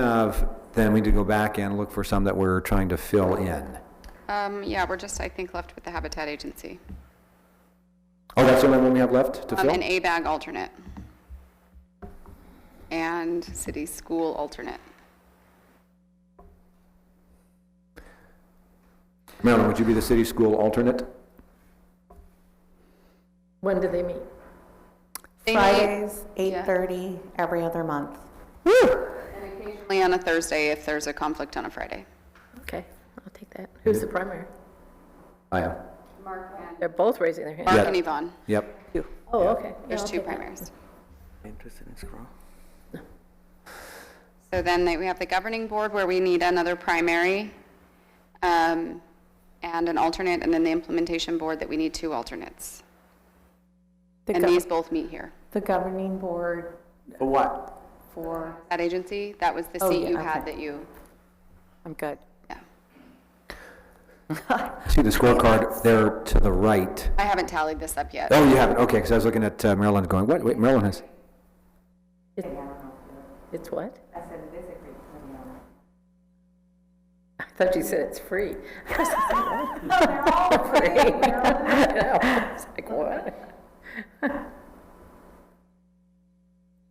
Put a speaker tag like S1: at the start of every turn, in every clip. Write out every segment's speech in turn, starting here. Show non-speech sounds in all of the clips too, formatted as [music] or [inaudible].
S1: have, then we need to go back and look for some that we're trying to fill in.
S2: Um, yeah, we're just, I think, left with the Habitat Agency.
S1: Oh, that's the only one we have left to
S2: Um,
S1: fill?
S2: an A-BAG alternate. And city school alternate.
S1: Marilyn, would you be the city school alternate?
S3: When do they meet?
S2: They meet
S4: Fridays,
S2: yeah.
S4: 8:30, every other month.
S2: Occasionally on a Thursday if there's a conflict on a Friday.
S3: Okay, I'll take that. Who's the primary?
S1: I am.
S3: They're both raising their hand.
S2: Mark and Yvonne,
S1: Yep.
S3: Oh, okay. Yeah,
S2: there's
S3: I'll
S2: two
S3: take that.
S2: primaries.
S5: Interested in scroll?
S2: So then they- we have the governing board where we need another primary um, and an alternate, and then the implementation board that we need two alternates.
S4: The
S2: And
S4: gov-
S2: these both meet here.
S4: The governing board
S5: For what?
S4: for,
S2: That agency, that was the
S4: Oh,
S2: seat
S4: yeah,
S2: you had
S4: okay.
S2: that you,
S4: I'm good.
S2: yeah.
S1: See the scorecard there to the right.
S2: I haven't tallied this up yet.
S1: Oh, you have it, okay, because I was looking at uh, Marilyn going, what, wait, Marilyn has,
S3: It's what? I said it is a free. I thought you said
S2: [laughs]
S3: it's free. [laughs] It's like, what?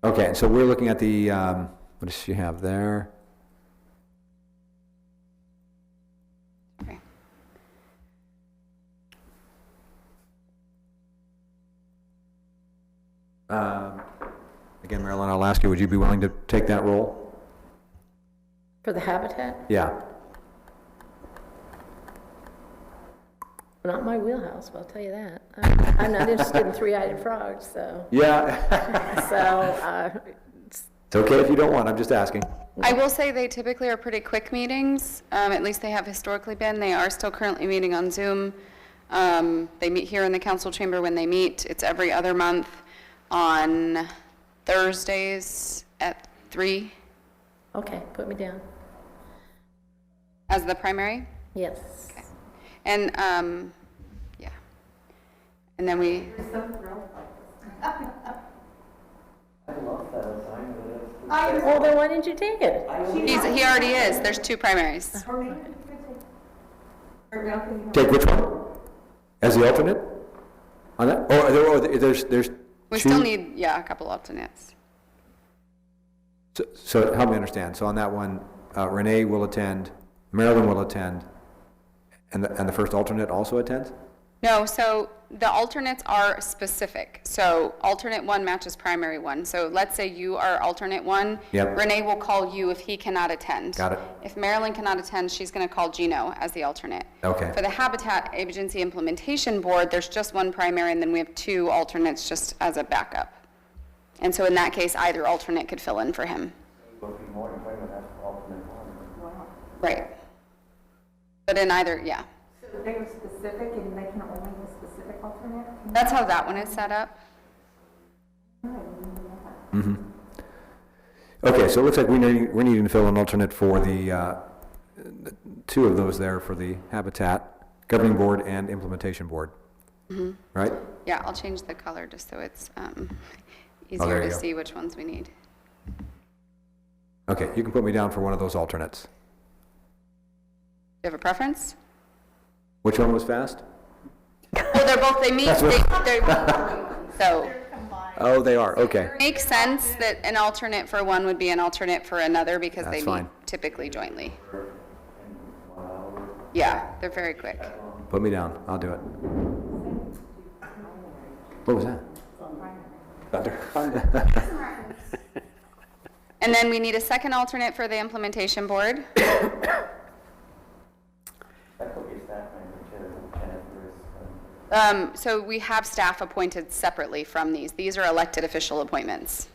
S1: okay, so we're looking at the, um, what does she have there?
S2: Okay.
S1: Um, Again, Marilyn, I'll ask you, would you be willing to take that role?
S3: For the habitat?
S1: Yeah.
S3: Not my wheelhouse, I'll tell you that. [laughs] I'm- I'm not interested in three-eyed frogs, so,
S1: Yeah,
S3: [laughs] so, uh, it's-
S1: [laughs] it's okay if you don't want, I'm just asking.
S2: I will say they typically are pretty quick meetings, um, at least they have historically been. They are still currently meeting on Zoom. Um, They meet here in the council chamber when they meet. It's every other month on Thursdays at three
S3: okay, put me down.
S2: as the primary.
S3: Yes.
S2: And, um, yeah. And then we,
S3: Well, then why didn't you take it?
S2: he's- he already is, there's two primaries.
S1: Take which one? As the alternate? On that, or Oh, there, or there's, there's.
S2: We
S1: two-
S2: still need, yeah, a couple alternates.
S1: So- So help me understand. So on that one, uh, Renee will attend, Marilyn will attend, and the, and the first alternate also attends?
S2: No, so the alternates are specific. So alternate one matches primary one. So let's say you are alternate one.
S1: Yep.
S2: Renee will call you if he cannot attend.
S1: Got it.
S2: If Marilyn cannot attend, she's going to call Gino as the alternate.
S1: Okay.
S2: For the Habitat Agency Implementation Board, there's just one primary, and then we have two alternates just as a backup. And so in that case, either alternate could fill in for him. Right. But in either, yeah.
S6: They were specific and they can only be specific alternate?
S2: That's how that one is set up.
S1: Okay, so it looks like we need, we're needing to fill an alternate for the, uh, two of those there for the Habitat Governing Board and Implementation Board.
S2: Mm-hmm.
S1: Right?
S2: Yeah, I'll change the color just so it's um,
S1: Oh, there
S2: easier
S1: you
S2: to
S1: go.
S2: see which ones we need.
S1: Okay, you can put me down for one of those alternates.
S2: Do you have a preference?
S1: Which one was fast?
S2: Well, they're both, they meet, they- they're, so
S1: Oh, they are, okay.
S2: it makes sense that an alternate for one would be an alternate for another because they
S1: That's
S2: meet
S1: fine.
S2: typically jointly. Yeah, they're very quick.
S1: Put me down, I'll do it. What was that? Thunder. [laughs]
S2: And then we need a second alternate for the
S1: [coughs]
S2: implementation board.
S5: That could be staff member too, and if there is, um,
S2: Um, So we have staff appointed separately from these. These are elected official appointments.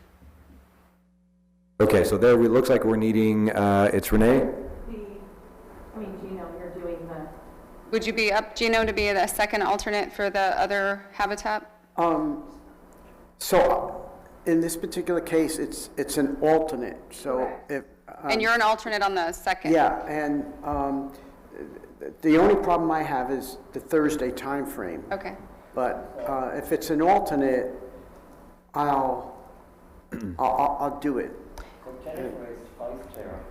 S1: Okay, so there, it looks like we're needing, uh, it's Renee?
S6: I mean, Gino, you're doing the.
S2: Would you be up, Gino, to be the second alternate for the other habitat?
S7: Um, So in this particular case, it's, it's an alternate, so if. um,
S2: And you're an alternate on the second?
S7: Yeah, and um, th- the only problem I have is the Thursday timeframe.
S2: Okay.
S7: But uh, if it's an alternate, [clears throat] I'll, I'll, I'll- I'll do it.
S5: well, Jennifer is vice chair.